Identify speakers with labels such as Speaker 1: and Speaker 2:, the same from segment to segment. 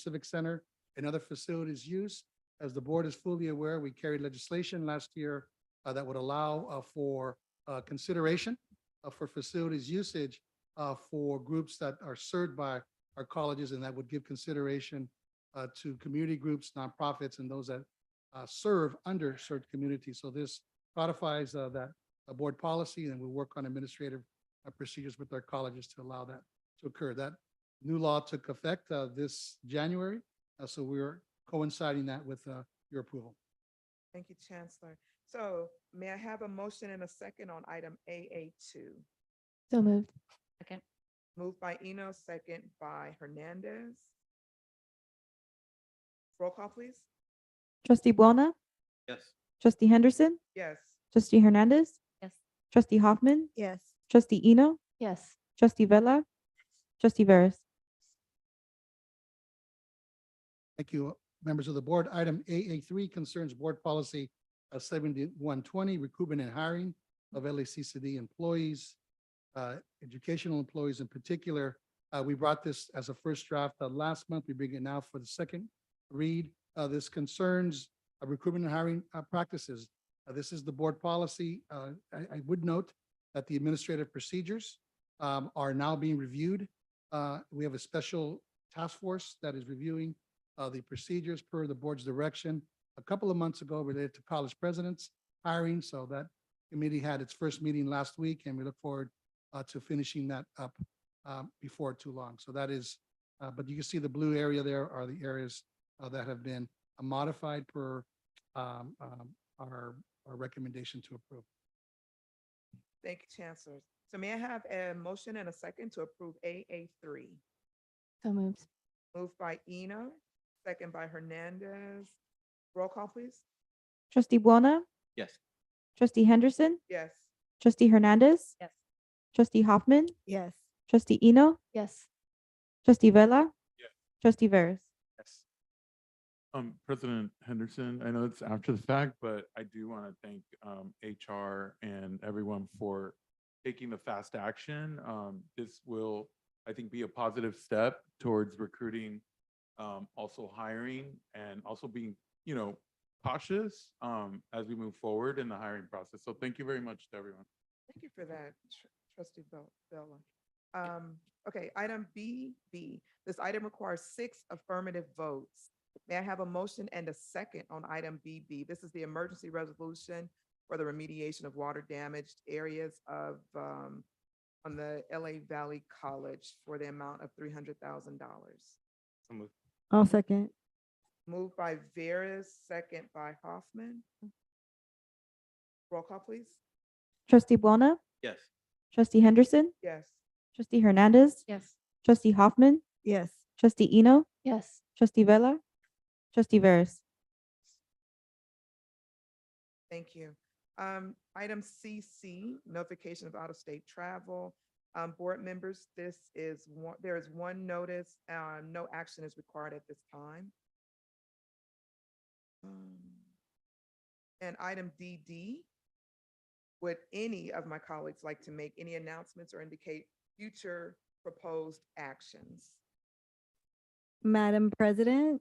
Speaker 1: Civic Center and other facilities use. As the board is fully aware, we carried legislation last year uh, that would allow uh, for uh, consideration uh, for facilities usage uh, for groups that are served by our colleges and that would give consideration uh, to community groups, nonprofits, and those that uh, serve underserved communities. So this codifies uh, that uh, board policy and we'll work on administrative uh, procedures with our colleges to allow that to occur. That new law took effect uh, this January, uh, so we're coinciding that with uh, your approval.
Speaker 2: Thank you, Chancellor. So may I have a motion and a second on item AA two?
Speaker 3: So moved.
Speaker 4: Second.
Speaker 2: Moved by Eno, second by Hernandez. Roll call, please.
Speaker 3: Trustee Buona,
Speaker 5: Yes.
Speaker 3: trustee Henderson,
Speaker 2: Yes,
Speaker 3: trustee Hernandez.
Speaker 4: Yes.
Speaker 3: Trustee Hoffman,
Speaker 6: Yes.
Speaker 3: trustee Eno,
Speaker 4: Yes.
Speaker 3: trustee Vella, trustee Veras.
Speaker 1: Thank you, members of the board. Item AA three concerns board policy seventy-one twenty, recruitment and hiring of LACCD employees, uh, educational employees in particular. Uh, We brought this as a first draft uh, last month. We bring it now for the second read. Uh, This concerns uh, recruitment and hiring uh, practices. Uh, This is the board policy. Uh, I, I would note that the administrative procedures um, are now being reviewed. Uh, We have a special task force that is reviewing uh, the procedures per the board's direction a couple of months ago related to college presidents hiring. So that committee had its first meeting last week and we look forward uh, to finishing that up um, before too long. So that is, uh, but you can see the blue area there are the areas uh, that have been modified per um, um, our, our recommendation to approve.
Speaker 2: thank you, Chancellor. So may I have a motion and a second to approve AA three?
Speaker 3: So moved.
Speaker 2: Moved by Eno, second by Hernandez. Roll call, please.
Speaker 3: Trustee Buona,
Speaker 5: Yes.
Speaker 3: trustee Henderson,
Speaker 2: Yes,
Speaker 3: trustee Hernandez.
Speaker 4: Yes.
Speaker 3: Trustee Hoffman,
Speaker 6: Yes.
Speaker 3: trustee Eno,
Speaker 4: Yes.
Speaker 3: trustee Vella.
Speaker 5: Yeah.
Speaker 3: Trustee Veras.
Speaker 5: Yes.
Speaker 7: Um, President Henderson, I know it's after the fact, but I do want to thank, um, HR and everyone for taking the fast action. Um, this will, I think, be a positive step towards recruiting, um, also hiring and also being, you know, cautious, um, as we move forward in the hiring process. So thank you very much to everyone.
Speaker 2: thank you for that, Tr- trustee Bel- Bella. Um, okay, item BB, this item requires six affirmative votes. May I have a motion and a second on item BB? This is the emergency resolution for the remediation of water damaged areas of, um, on the LA Valley College for the amount of three hundred thousand dollars.
Speaker 5: So moved.
Speaker 6: I'll second.
Speaker 2: Moved by Veras, second by Hoffman. Roll call, please.
Speaker 3: Trustee Buona,
Speaker 5: Yes.
Speaker 3: trustee Henderson,
Speaker 2: Yes.
Speaker 3: trustee Hernandez,
Speaker 4: Yes.
Speaker 3: trustee Hoffman,
Speaker 6: Yes.
Speaker 3: trustee Eno,
Speaker 4: Yes.
Speaker 3: trustee Vella, trustee Veras.
Speaker 2: Thank you. Um, item CC, notification of out-of-state travel. Um, board members, this is one, there is one notice, uh, no action is required at this time. Um, And item DD, would any of my colleagues like to make any announcements or indicate future proposed actions?
Speaker 6: Madam President,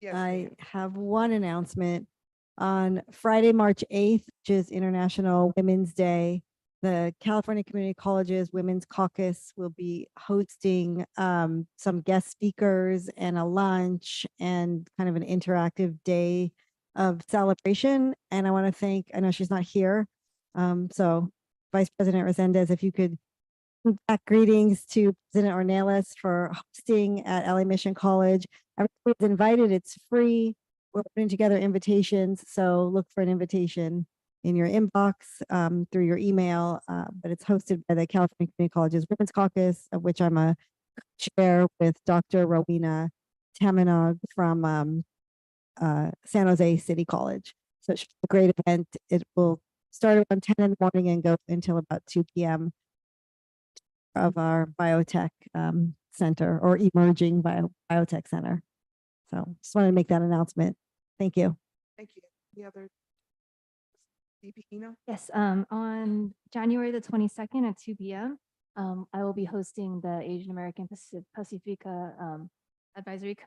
Speaker 2: Yes,
Speaker 6: I
Speaker 2: ma'am.
Speaker 6: have one announcement. On Friday, March 8th, which is International Women's Day, the California Community Colleges Women's Caucus will be hosting um, some guest speakers and a lunch and kind of an interactive day of celebration. And I want to thank, I know she's not here. um, So Vice President Resendez, if you could back greetings to President Ornelas for hosting at LA Mission College. Everyone's invited. It's free. We're putting together invitations, so look for an invitation in your inbox um, through your email. uh, but it's hosted by the California Community Colleges Women's Caucus, of which I'm a chair with Dr. Rowena Tamanog from um, uh, San Jose City College. So it's a great event. It will start around 10 in the morning and go until about 2 p.m. of our biotech um, center or emerging bio- biotech center. So just wanted to make that announcement. Thank you.
Speaker 2: Thank you. Any other? DP Eno?
Speaker 4: Yes, um, on January the twenty-second at two P M, um, I will be hosting the Asian American Pacific, Pacifica, um, Advisory Committee